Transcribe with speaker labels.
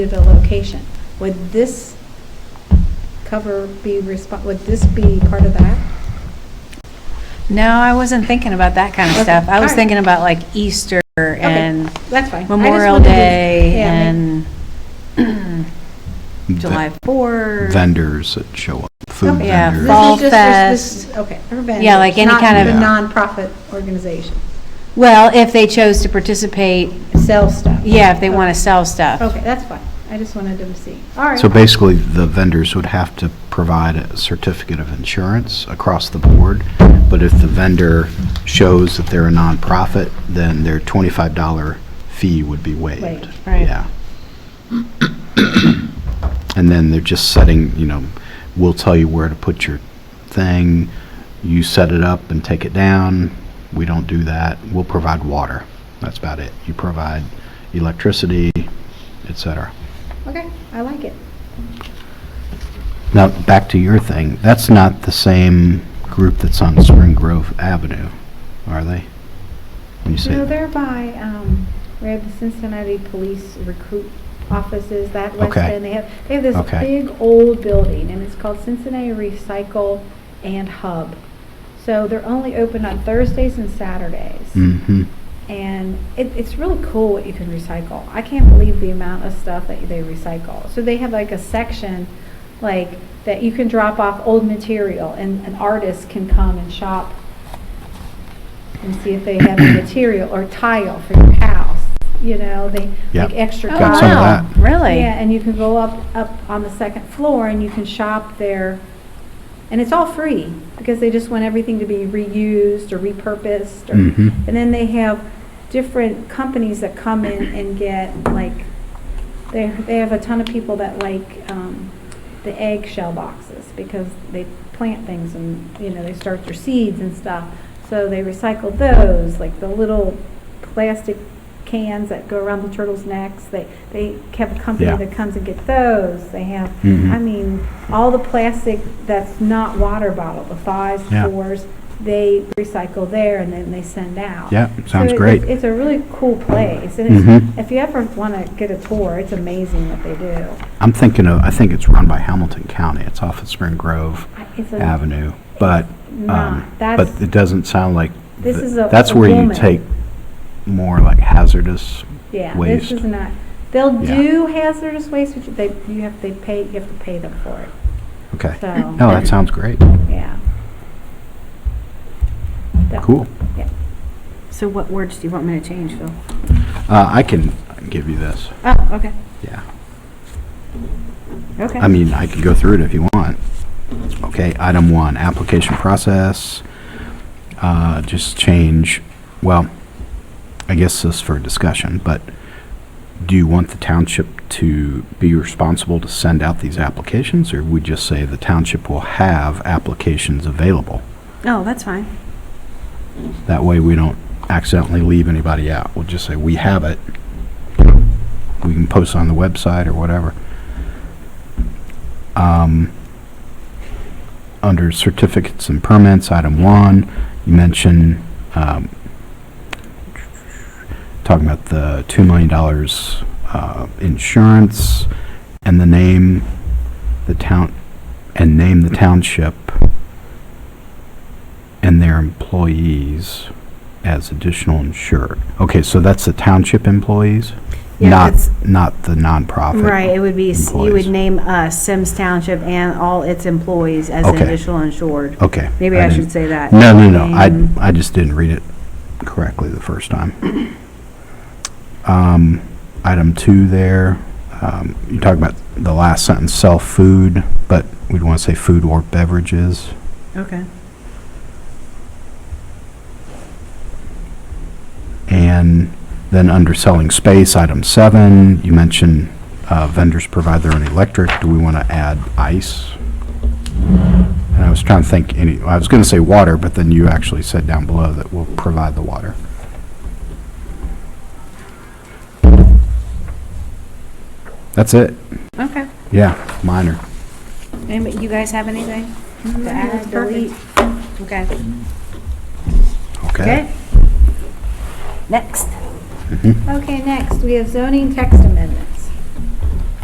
Speaker 1: to the location. Would this cover be respon would this be part of that?
Speaker 2: No, I wasn't thinking about that kind of
Speaker 1: Okay,
Speaker 2: stuff. I was
Speaker 1: alright.
Speaker 2: thinking about like Easter and
Speaker 1: That's fine. I just
Speaker 2: Memorial
Speaker 1: wanted to-
Speaker 2: Day
Speaker 1: yeah, make-
Speaker 2: and
Speaker 3: Ve-
Speaker 2: July 4th.
Speaker 3: Vendors that show up, food
Speaker 1: Okay.
Speaker 2: Yeah,
Speaker 1: This
Speaker 3: vendors.
Speaker 1: is
Speaker 2: Fall
Speaker 1: just- this- this-
Speaker 2: Fest.
Speaker 1: Okay. for vendors,
Speaker 2: Yeah, like any
Speaker 1: not
Speaker 2: kind
Speaker 3: of-
Speaker 1: the Nonprofit organization,
Speaker 2: Well, if they chose to participate,
Speaker 1: sell stuff.
Speaker 2: yeah, if they want to sell stuff.
Speaker 1: Okay, that's fine. I just wanted to see. All right.
Speaker 3: So basically, the vendors would have to provide a certificate of insurance across the board, but if the vendor shows that they're a nonprofit, then their $25 fee would be waived.
Speaker 1: Waived,
Speaker 2: right.
Speaker 3: Yeah. And then they're just setting, you know, we'll tell you where to put your thing, you set it up and take it down, we don't do that, we'll provide water, that's about it. You provide electricity, et cetera.
Speaker 1: Okay, I like it.
Speaker 3: Now, back to your thing, that's not the same group that's on Spring Grove Avenue, are they? When you say-
Speaker 1: No, they're by, um, where the Cincinnati Police Recruit Offices, that West
Speaker 3: Okay.
Speaker 1: End, they have, they have this
Speaker 3: Okay.
Speaker 1: big old building, and it's called Cincinnati Recycle and Hub. So they're only open on Thursdays and Saturdays.
Speaker 3: Mhm.
Speaker 1: And it, it's really cool what you can recycle. I can't believe the amount of stuff that they recycle. So they have like a section, like, that you can drop off old material, and an artist can come and shop and see if they have the material or tile for your house, you know, they,
Speaker 3: Yep.
Speaker 1: like extra
Speaker 2: Oh,
Speaker 1: tile.
Speaker 3: Got some of
Speaker 2: wow,
Speaker 3: that.
Speaker 2: Really?
Speaker 1: Yeah, and you can go up, up on the second floor and you can shop there. And it's all free because they just want everything to be reused or repurposed. or-
Speaker 3: Mhm.
Speaker 1: And then they have different companies that come in and get like, they, they have a ton of people that like, um, the eggshell boxes because they plant things and, you know, they start their seeds and stuff. So they recycle those, like the little plastic cans that go around the turtles' necks. They, they have a company
Speaker 3: Yeah.
Speaker 1: that comes and get those. They have,
Speaker 3: Mhm.
Speaker 1: I mean, all the plastic that's not water bottle, the fives,
Speaker 3: Yeah.
Speaker 1: fours, they recycle there and then they send out.
Speaker 3: Yeah,
Speaker 1: So
Speaker 3: sounds
Speaker 1: it-
Speaker 3: great.
Speaker 1: It's a really cool place. And it's,
Speaker 3: Mhm.
Speaker 1: if you ever want to get a tour, it's amazing what they do.
Speaker 3: I'm thinking of, I think it's run by Hamilton County, it's off of Spring Grove
Speaker 1: I- It's a
Speaker 3: Avenue, but,
Speaker 1: Nah,
Speaker 3: um, but
Speaker 1: that's,
Speaker 3: it doesn't sound like,
Speaker 1: This
Speaker 3: th-
Speaker 1: is a-
Speaker 3: that's
Speaker 1: a
Speaker 3: where you
Speaker 1: woman.
Speaker 3: take more like hazardous,
Speaker 1: yeah, this
Speaker 3: waste.
Speaker 1: is not, they'll
Speaker 3: Yeah.
Speaker 1: do hazardous waste, but they, you have, they pay, you have to pay them for it,
Speaker 3: okay.
Speaker 1: so,
Speaker 3: No, that sounds great,
Speaker 1: yeah. That-
Speaker 3: cool.
Speaker 2: So what words do you want me to change, Phil?
Speaker 3: Uh, I can give you this,
Speaker 2: Oh, okay,
Speaker 3: yeah.
Speaker 2: okay.
Speaker 3: I mean, I could go through it if you want. Okay, item one, application process, uh, just change, well, I guess this is for discussion, but do you want the township to be responsible to send out these applications, or we just say the township will have applications available?
Speaker 2: Oh, that's fine.
Speaker 3: That way, we don't accidentally leave anybody out. We'll just say, we have it. We can post on the website or whatever. Um, Under certificates and permits, item one, you mentioned, um, talking about the $2 million uh, insurance and the name, the town, and name the township and their employees as additional insured. Okay, so that's the township employees?
Speaker 2: Yeah,
Speaker 3: Not,
Speaker 2: it's-
Speaker 3: not the nonprofit?
Speaker 2: Right, it would be, s- you would
Speaker 3: employees.
Speaker 2: name us, Sims Township, and all its employees as
Speaker 3: Okay.
Speaker 2: additional insured.
Speaker 3: Okay.
Speaker 2: Maybe I
Speaker 3: didn't-
Speaker 2: should say that.
Speaker 3: No, no, no, I,
Speaker 2: Name-
Speaker 3: I just didn't read it correctly the first time. Um, item two there, um, you talk about the last sentence, sell food, but we'd want to say food or beverages.
Speaker 2: Okay.
Speaker 3: And then under selling space, item seven, you mentioned uh, vendors provide their own electric. Do we want to add ice? And I was trying to think, any, I was going to say water, but then you actually said down below that we'll provide the water. That's it.
Speaker 2: Okay.
Speaker 3: Yeah, minor.
Speaker 2: Anybody, you guys have anything? to add?
Speaker 1: That's perfect.
Speaker 2: Okay.
Speaker 3: Okay. Mm-hmm.
Speaker 2: Next.
Speaker 1: Okay, next, we have zoning text amendment.